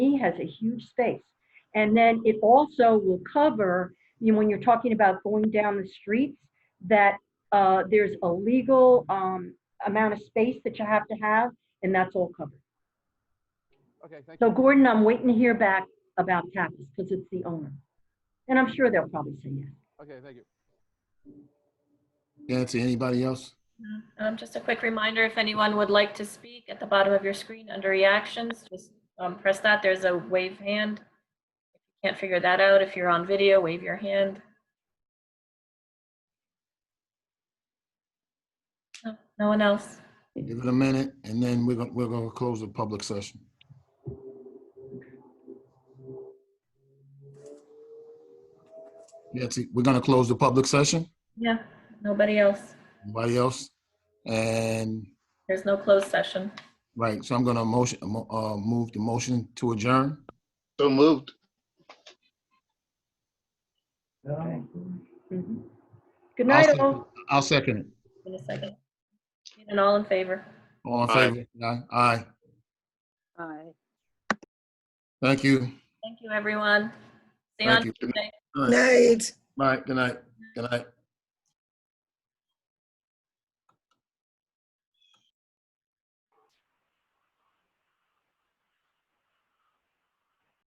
has a huge space. And then it also will cover, you know, when you're talking about going down the streets, that uh, there's a legal um, amount of space that you have to have, and that's all covered. Okay, thank So you. Gordon, I'm waiting to hear back about Tapas, because it's the owner. And I'm sure they'll probably say yes. Okay, thank you. Nancy, anybody else? Um, just a quick reminder, if anyone would like to speak at the bottom of your screen under reactions, just um, press that. There's a wave hand. If you Can't figure that out. If you're on video, wave your hand. No, Oh, no one else. Give it a minute, and then we're gonna, we're gonna close the public session. Nancy, we're gonna close the public session. Yeah, nobody else. Anybody else? And, There's no closed session. right, so I'm gonna motion, uh, move the motion to adjourn. So moved. Mhm. Good I'll night, second- all. I'll second it. In a second. And all in favor. All in Aye. favor? Aye. Aye. Aye. Thank you. Thank you, everyone. See you Thank on you. Tuesday. Night. Bye, good night, good night.